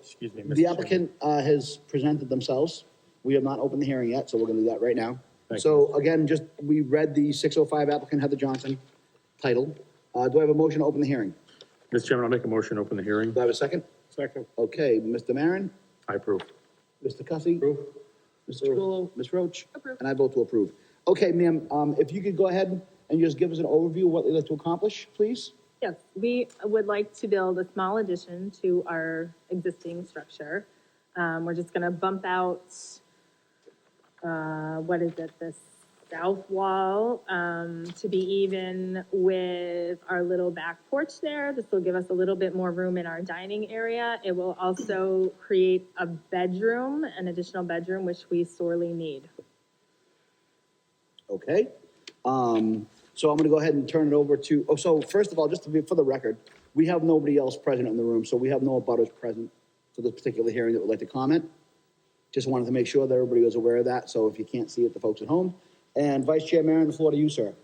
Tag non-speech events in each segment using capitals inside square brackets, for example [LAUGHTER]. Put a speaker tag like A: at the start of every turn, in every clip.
A: Excuse me,
B: The
A: Mr. Chairman.
B: applicant uh, has presented themselves. We have not opened the hearing yet, so we're going to do that right now.
A: Thank
B: So again, just, we read the 605 applicant Heather Johnson title. Uh, Do I have a motion to open the hearing?
A: Mr. Chairman, I'll make a motion, to open the hearing.
B: Do I have a second?
A: Second.
B: Okay, Mr. Marin,
A: I approve.
B: Mr. Cussy. Approve. Mr. Chacolo, Ms. Roach. Approve. And I vote to approve. Okay, ma'am, um, if you could go ahead and just give us an overview of what they'd like to accomplish, please?
C: Yes, we would like to build a small addition to our existing structure. Um, we're just gonna bump out, uh, what is it, the south wall, um, to be even with our little back porch there. This will give us a little bit more room in our dining area. It will also create a bedroom, an additional bedroom, which we sorely need.
B: Okay. Um, so I'm gonna go ahead and turn it over to, oh, so first of all, just to be, for the record, we have nobody else present in the room, so we have no abutters present for this particular hearing that would like to comment. Just wanted to make sure that everybody was aware of that, so if you can't see it, the folks at home. And Vice Chair Maron, the floor to you, sir.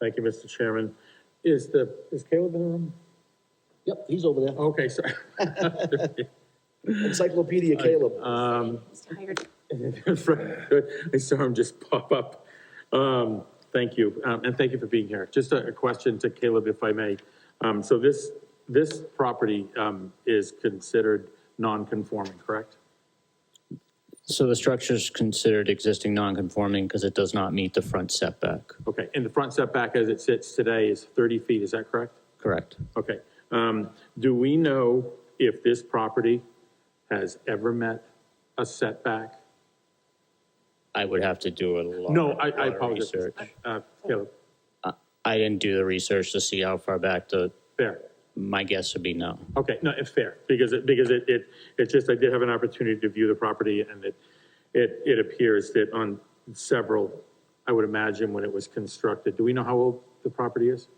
A: Thank you, Mr. Chairman. Is the, is Caleb in the room?
B: Yep, he's over there.
A: Okay, sorry.
B: Encyclopedia Caleb.
A: Uh, Good. [LAUGHS] I saw him just pop up. Um, thank you, um, and thank you for being here. Just a, a question to Caleb, if I may. Um, so this, this property, um, is considered non-conforming, correct?
D: So the structure is considered existing non-conforming because it does not meet the front setback,
A: Okay, and the front setback as it sits today is thirty feet, is that correct?
D: correct?
A: Okay, um, do we know if this property has ever met a setback?
D: I would have to do a lot.
A: No, I,
D: lot
A: I
D: of
A: apologize.
D: research.
A: Uh, Caleb,
D: I didn't do the research to see how far back the,
A: fair.
D: my guess would be no.
A: Okay, no, it's fair, because it, because it, it, it's just, I did have an opportunity to view the property, and it, it, it appears that on several, I would imagine when it was constructed, do we know how old the property is?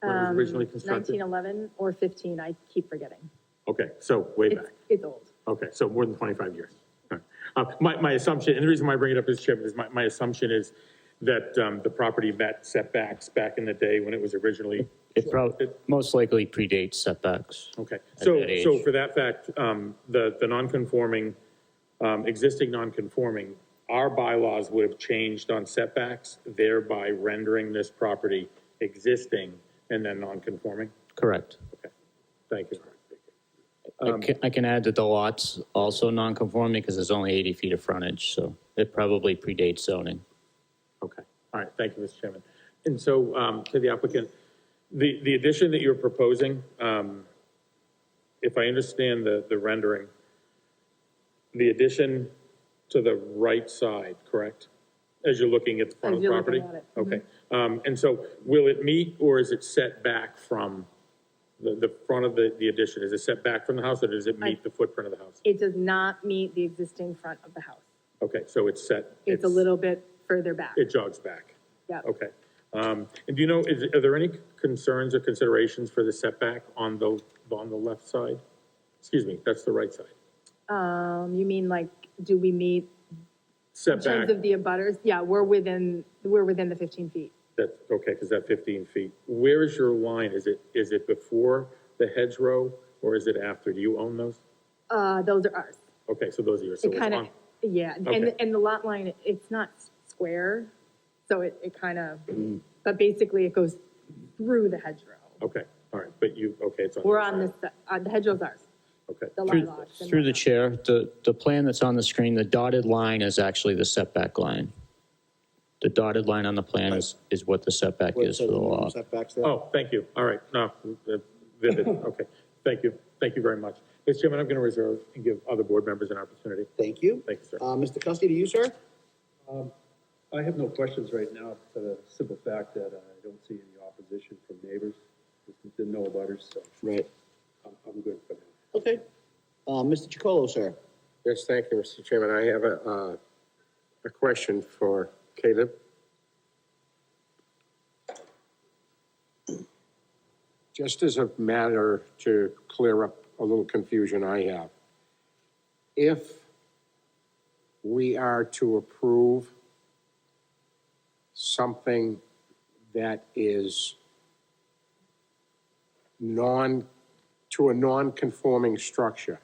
A: When it was originally constructed?
C: Um, Nineteen eleven or fifteen, I keep forgetting.
A: Okay, so way
C: It's,
A: back,
C: it's old.
A: okay, so more than twenty-five years. All right. Uh, my, my assumption, and the reason why I bring it up is, Chairman, is my, my assumption is that, um, the property met setbacks back in the day when it was originally
D: It probably, most likely predates setbacks.
A: Okay,
D: at
A: so,
D: that
A: so
D: age.
A: for that fact, um, the, the non-conforming, um, existing non-conforming, our bylaws would have changed on setbacks, thereby rendering this property existing and then non-conforming?
D: Correct.
A: Thank you.
D: I
A: Um,
D: can, I can add that the lot's also non-conforming because there's only 80 feet of frontage, so it probably predates zoning.
A: Okay, all right, thank you, Mr. Chairman. And so, um, to the applicant, the, the addition that you're proposing, um, if I understand the, the rendering, the addition to the right side, correct? As you're looking at the front of the
C: As you're
A: property?
C: looking Mm-hmm.
A: Okay, um, and so will it meet or is it set back from the, the front of the, the addition? Is it set back from the house or does it meet the footprint of the house?
C: It does not meet the existing front of the house.
A: Okay, so it's set.
C: It's a little bit further back.
A: It jogs back.
C: Yeah.
A: Okay. Um, and do you know, is, are there any concerns or considerations for the setback on the, on the left side? Excuse me, that's the right side.
C: Um, you mean like, do we meet, in
A: Setback,
C: terms of the abutters? Yeah, we're within, we're within the fifteen feet.
A: that's, okay, because that fifteen feet. Where is your line? Is it, is it before the hedgerow or is it after? Do you own those?
C: Uh, those are ours.
A: Okay, so those are yours. So
C: It
A: it's
C: kind of,
A: on-
C: yeah, and,
A: Okay.
C: and the lot line, it's not square, so it, it kind of,
A: Mm.
C: but basically it goes through the hedgerow.
A: Okay, all right, but you, okay, it's on.
C: We're
A: your
C: on
A: side.
C: this, uh, the hedgerow's ours,
A: Okay,
C: the lot
D: Through,
C: lots. and
D: through the
C: whatnot.
D: chair, the, the plan that's on the screen, the dotted line is actually the setback line. The dotted line on the plan is, is what the setback
B: Where it
D: is for
B: says
D: the
B: minimum
D: lot.
B: setbacks there.
A: oh, thank you, all right, no, uh, vivid, okay, thank you, thank you very much. Mr. Chairman, I'm going to reserve and give other board members an opportunity.
B: Thank you.
A: Thank you, sir.
B: Uh, Mr. Cussy, to you, sir?
E: I have no questions right now, for the simple fact that I don't see any opposition from neighbors, didn't know about her, so
B: Right.
E: I'm, I'm good for now.
B: Okay. Uh, Mr. Chacolo, sir?
F: Yes, thank you, Mr. Chairman. I have a, uh, a question for Caleb. Just as a matter to clear up a little confusion I have. If we are to approve something that is non, to a non-conforming structure,